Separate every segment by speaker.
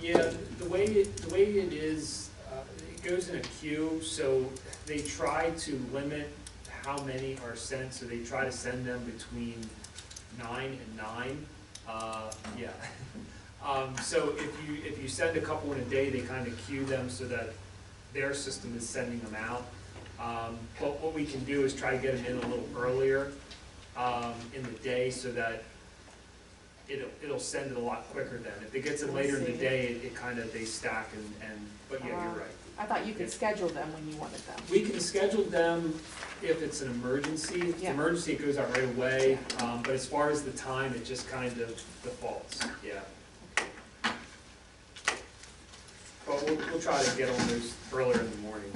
Speaker 1: Yeah, the way it, the way it is, uh, it goes in a queue, so they try to limit how many are sent, so they try to send them between nine and nine, uh, yeah. Um, so if you, if you send a couple in a day, they kind of queue them so that their system is sending them out. Um, but what we can do is try to get them in a little earlier, um, in the day so that it'll, it'll send it a lot quicker then. If it gets in later in the
Speaker 2: I see.
Speaker 1: day, it, it kind of, they stack and, and, but yeah,
Speaker 2: Ah.
Speaker 1: you're right.
Speaker 2: I thought you could schedule them when you wanted them.
Speaker 1: We can schedule them if it's an emergency. If it's an
Speaker 2: Yeah.
Speaker 1: emergency, it goes out right away, um, but as far as the time, it just kind of defaults, yeah. But we'll, we'll try to get on those earlier in the morning.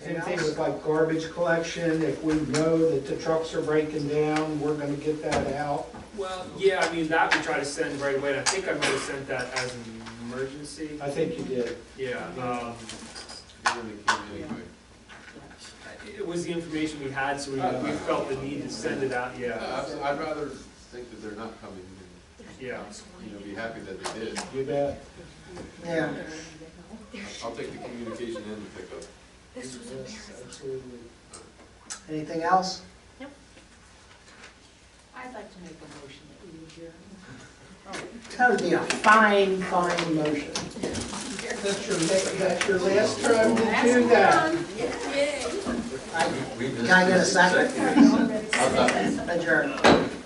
Speaker 3: Same thing with like garbage collection, if we know that the trucks are breaking down, we're gonna get that out.
Speaker 1: Well, yeah, I mean, that we try to send right away, and I think I might have sent that as an emergency,
Speaker 3: I think you did.
Speaker 1: yeah. um, It was the information we had, so we, we felt the need to send it out, yeah,
Speaker 4: I'd rather think that they're not coming, and,
Speaker 1: yeah.
Speaker 4: you know, be happy that they did.
Speaker 3: You bet. Yeah.
Speaker 4: I'll take the communication and the pickup.
Speaker 3: Yes, Absolutely.
Speaker 5: Anything else?
Speaker 6: I'd like to make a motion that we adjourn.
Speaker 5: That would be a fine, fine motion.
Speaker 3: That's your, that's your last time to do that.
Speaker 6: Yay.
Speaker 5: I- Can I get a second?
Speaker 4: How's that?
Speaker 5: Adjourn.